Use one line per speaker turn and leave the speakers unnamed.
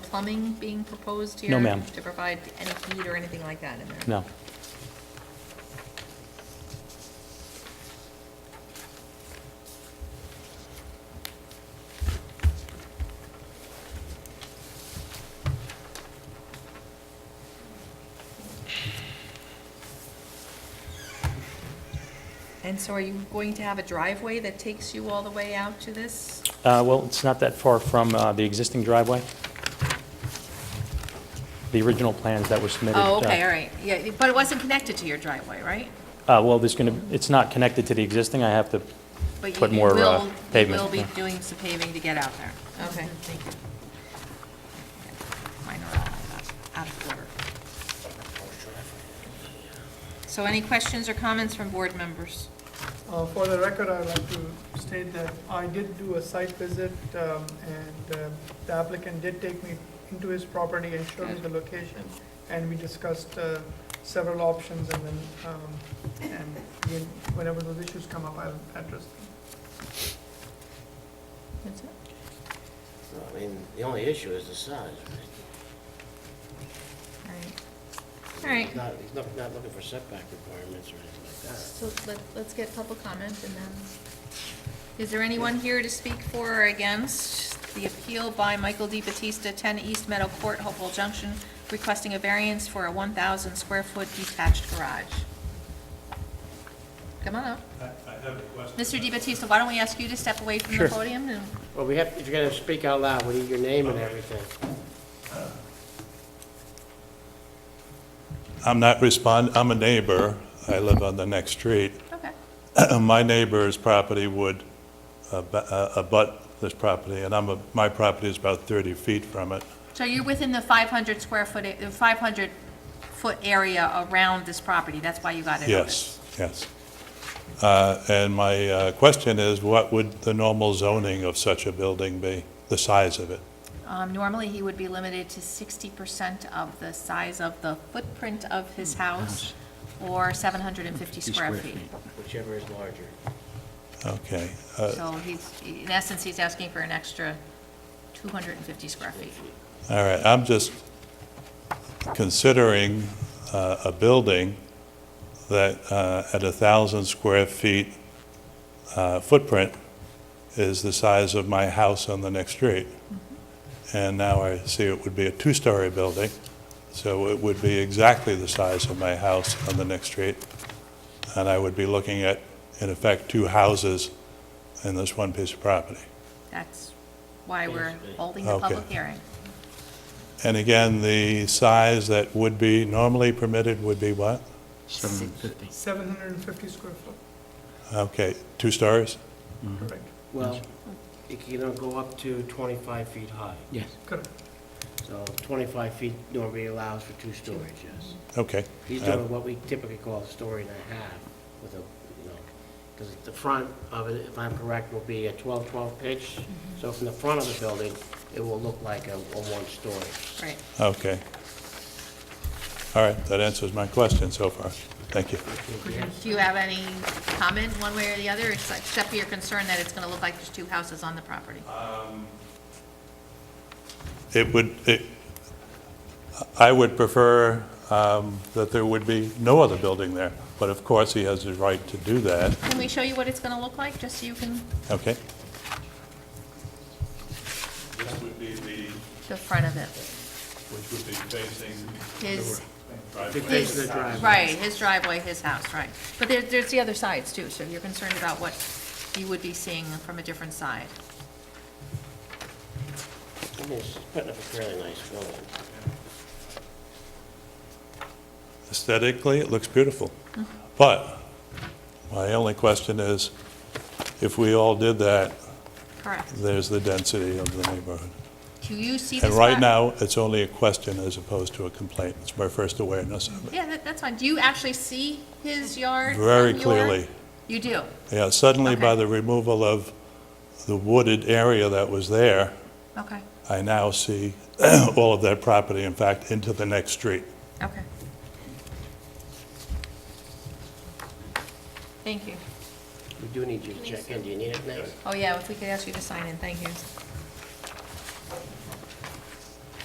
plumbing being proposed here?
No, ma'am.
To provide any heat or anything like that in there?
No.
And so are you going to have a driveway that takes you all the way out to this?
Uh, Well, it's not that far from uh, the existing driveway. The original plans that were submitted.
Oh,
uh,
okay, all right, yeah, but it wasn't connected to your driveway, right?
uh, Well, there's going to, it's not connected to the existing. I have to
But you-
put
you
more uh,
will-
pavement.
You will
yeah.
be doing some paving to get out there. Okay. Thank you. Mine are all uh, out of order. So any questions or comments from board members?
Uh, For the record, I'd like to state that I did do a site visit, um, and uh, the applicant did take me into his property and showed me the location, and we discussed uh, several options, and then, um, and when- whenever those issues come up, I'll address them.
That's it.
So, I mean, the only issue is the size, right?
All right. All right.
He's not, he's not, not looking for setback requirements or anything like that.
So let, let's get public comment and then, is there anyone here to speak for or against the appeal by Michael D. Batista, 10 East Meadow Court, Hopewell Junction, requesting a variance for a 1,000 square foot detached garage? Come on up.
I I have a question.
Mr. D. Batista, why don't we ask you to step away from the
Sure.
podium? and-
Well, we have, if you're gonna speak out loud, we need your name and everything.
I'm not respond, I'm a neighbor. I live on the next street.
Okay.
My neighbor's property would ab- uh, abut this property, and I'm, a- my property is about 30 feet from it.
So you're within the 500 square foot, 500 foot area around this property, that's why you got it open?
Yes, yes. Uh, And my uh, question is, what would the normal zoning of such a building be, the size of it?
Um, normally, he would be limited to sixty percent of the size of the footprint of his house, or seven hundred and Mm, fifty square feet.
Whichever is larger.
Okay. uh,
So he's, in essence, he's asking for an extra two hundred and fifty square feet.
All right, I'm just considering uh, a building that uh, at a 1,000 square feet uh, footprint is the size of my house on the next street. And now I see it would be a two-story building, so it would be exactly the size of my house on the next street. And I would be looking at, in effect, two houses in this one piece of property.
That's why we're holding the
Okay.
public hearing.
And again, the size that would be normally permitted would be what?
750.
750 square foot,
Okay, two stories?
correct,
Well, it can either go up to 25 feet high.
Yes.
correct.
So 25 feet normally allows for two stories, yes.
Okay.
He's
Uh,
doing what we typically call a story and a half with a, you know, because the front of it, if I'm correct, will be a 12-12 pitch. So from the front of the building, it will look like a a one-story.
Right.
Okay. All right, that answers my question so far. Thank you.
Do you have any comment, one way or the other, ex- except for your concern that it's gonna look like there's two houses on the property?
It would, it, I would prefer um, that there would be no other building there, but of course, he has the right to do that,
Can we show you what it's gonna look like, just so you can,
okay? This would be the,
the front of it?
which would be facing
His,
Because
His-
of the driveway.
Right, his driveway, his house, right. But there, there's the other sides too, so you're concerned about what you would be seeing from a different side.
I mean, it's putting up a fairly nice building.
Aesthetically, it looks beautiful. But my only question is, if we all did that,
Correct.
there's the density of the neighborhood.
Do you see this?
And right
pro-
now, it's only a question as opposed to a complaint. It's my first awareness of it.
Yeah, that, that's fine. Do you actually see his yard? from
Very
your-
clearly.
You do?
Yeah, suddenly by
Okay.
the removal of the wooded area that was there,
Okay,
I now see all of that property, in fact, into the next street.
okay. Thank you.
We do need you to check in. Do you need it now?
Oh, yeah, if we could ask you to sign in, thank you.